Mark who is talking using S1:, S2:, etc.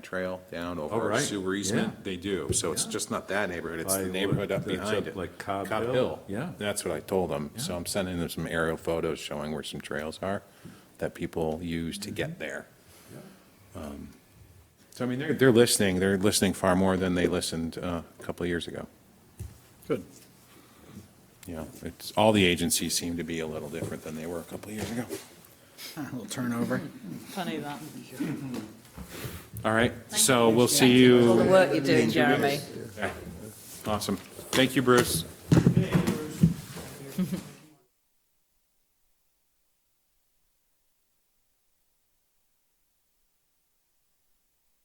S1: trail down
S2: Oh,
S1: over a
S2: right.
S1: sewer
S2: Yeah.
S1: easement, they do. So it's
S2: Yeah.
S1: just not that neighborhood, it's
S2: By
S1: the
S2: what-
S1: neighborhood up
S2: that's
S1: behind
S2: up
S1: it.
S2: like Cobb Hill. Yeah.
S1: That's what I told them. So
S2: Yeah.
S1: I'm sending them some aerial photos showing where some trails are that people use to
S2: Mm-hmm.
S1: get there. Um, So I mean, they're, they're listening, they're listening far more than they listened uh, a couple of years ago.
S3: Good.
S1: You know, it's, all the agencies seem to be a little different than they were a couple of years ago.
S3: A little turnover.
S4: Funny that.
S1: All right, so we'll see
S4: All the
S1: you.
S4: work you're doing, Jeremy.
S1: Awesome. Thank you, Bruce.